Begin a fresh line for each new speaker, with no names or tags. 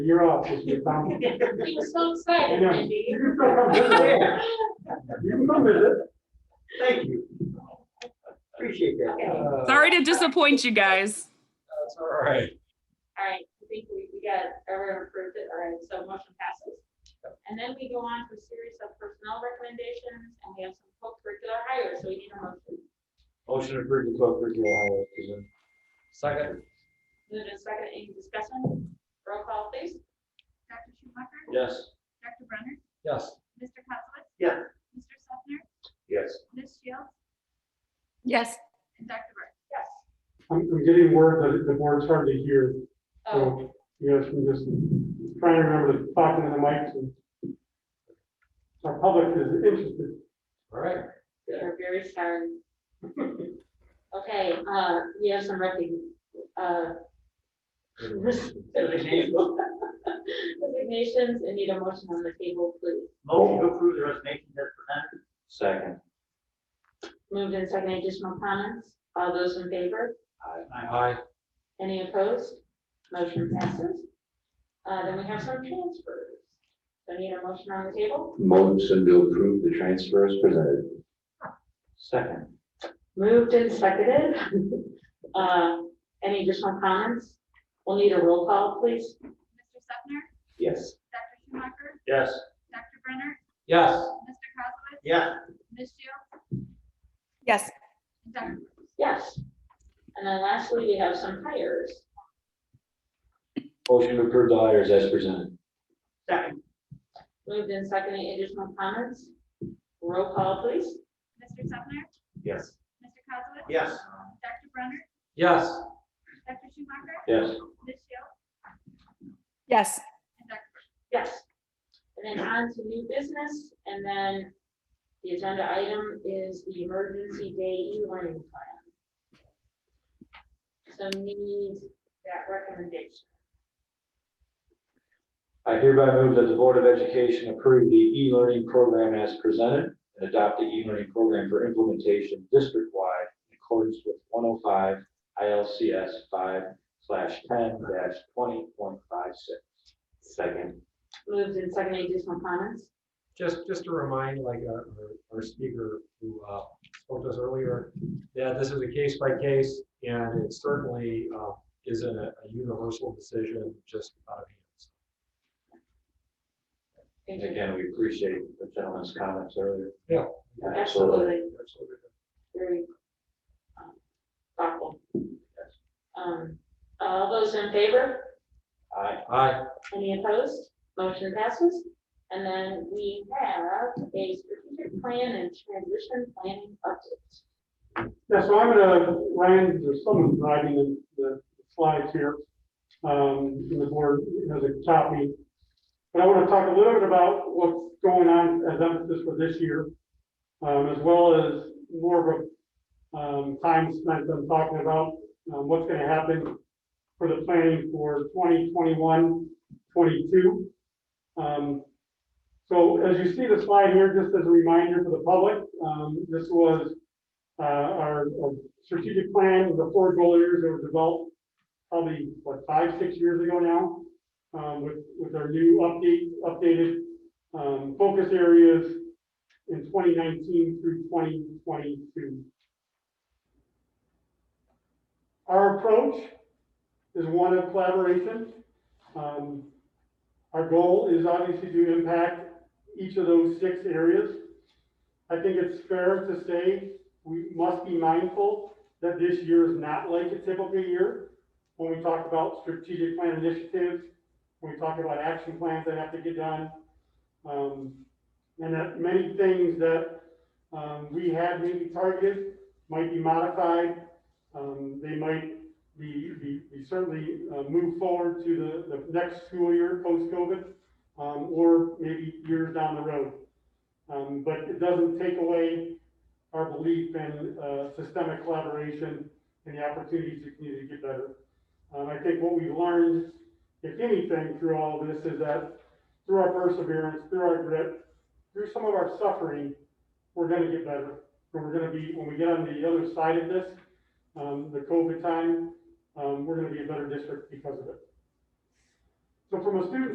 You're off, just you're fine.
He was so excited,
Yeah.
Wendy.
You can come visit. You can come visit. Thank you. Appreciate that.
Okay.
Uh,
Sorry to disappoint you guys.
That's all right.
All right, I think we, we got, everyone approved it, all right, so motion passes. And then we go on to a series of personnel recommendations, and we have some co-curricular hires, so we need a motion.
Motion approved to co-curricular hires. Second.
Move in second, any discussion? Roll call, please.
Dr. Schumacher?
Yes.
Dr. Brenner?
Yes.
Mr. Kozowitz?
Yeah.
Mr. Sefner?
Yes.
Ms. Shields?
Yes.
And Dr. Burke?
Yes.
I'm, I'm getting word that the board's hard to hear,
Oh,
so you guys can just try and remember to talk into the mics and our public is interested.
All right.
we are very sorry. Okay, uh, we have some rec, uh, resignations, and need a motion on the table, please.
Motion to approve Oh, the resignation as presented. Second.
Moved in second, additional comments? All those in favor?
Aye. Aye.
Any opposed? Motion passes. Uh, then we have some transfers. So need a motion on the table?
Motion to approve the transfers presented.
Second.
Moved and seconded. Uh, any additional comments? We'll need a roll call, please.
Mr. Sefner?
Yes.
Dr. Schumacher?
Yes.
Dr. Brenner?
Yes.
Mr. Kozowitz?
Yes.
Ms. Shields?
Yes.
And Dr. Burke?
Yes. And then lastly, we have some hires.
Motion to approve the hires as presented.
Second.
Moved and seconded, any additional comments? Roll call, please.
Mr. Sefner?
Yes.
Mr. Kozowitz?
Yes.
Dr. Brenner?
Yes.
Dr. Schumacher?
Yes.
Ms. Shields?
Yes.
And Dr. Burke?
Yes. And then on to new business, and then the agenda item is the emergency day e-learning plan. So need that recommendation.
I hereby move that the Board of Education approve the e-learning program as presented and adopt the e-learning program for implementation district-wide in accordance with 105 ILCS 5 slash 10 dash 20.56. Second.
Moved and seconded, additional comments?
Just, just to remind, like, uh, our, our speaker who uh, spoke to us earlier, that this is a case by case, and it certainly uh, isn't a a universal decision just out of hands.
Thank you.
Again, we appreciate the gentleman's comments earlier.
Yeah.
Absolutely,
Absolutely.
very um, thoughtful. Um, all those in favor?
Aye.
Aye.
Any opposed? Motion passes. And then we have a strategic plan and transition planning update.
Yeah, so I'm gonna, Ryan, there's someone driving the, the slides here. Um, and the board has a copy. But I wanna talk a little bit about what's going on as emphasis for this year. Um, as well as more of a, um, time spent on talking about, um, what's gonna happen for the planning for 2021, 22. Um, so as you see the slide here, just as a reminder for the public, um, this was uh, our our strategic plan, the four goal areas that were developed probably, what, five, six years ago now, um, with, with our new update, updated, um, focus areas in twenty nineteen through twenty twenty-two. Our approach is one of collaboration. Um, our goal is obviously to impact each of those six areas. I think it's fair to say we must be mindful that this year is not like a typical year. When we talk about strategic plan initiatives, when we talk about action plans that have to get done, um, and that many things that, um, we had maybe targeted might be modified. Um, they might be, be, be certainly, uh, move forward to the, the next school year post-COVID, um, or maybe years down the road. Um, but it doesn't take away our belief in uh, systemic collaboration and the opportunities to continue to get better. Um, I think what we've learned, if anything, through all of this is that through our perseverance, through our grit, through some of our suffering, we're going to get better. And we're going to be, when we get on the other side of this, um, the COVID time, um, we're going to be a better district because of it. So from a student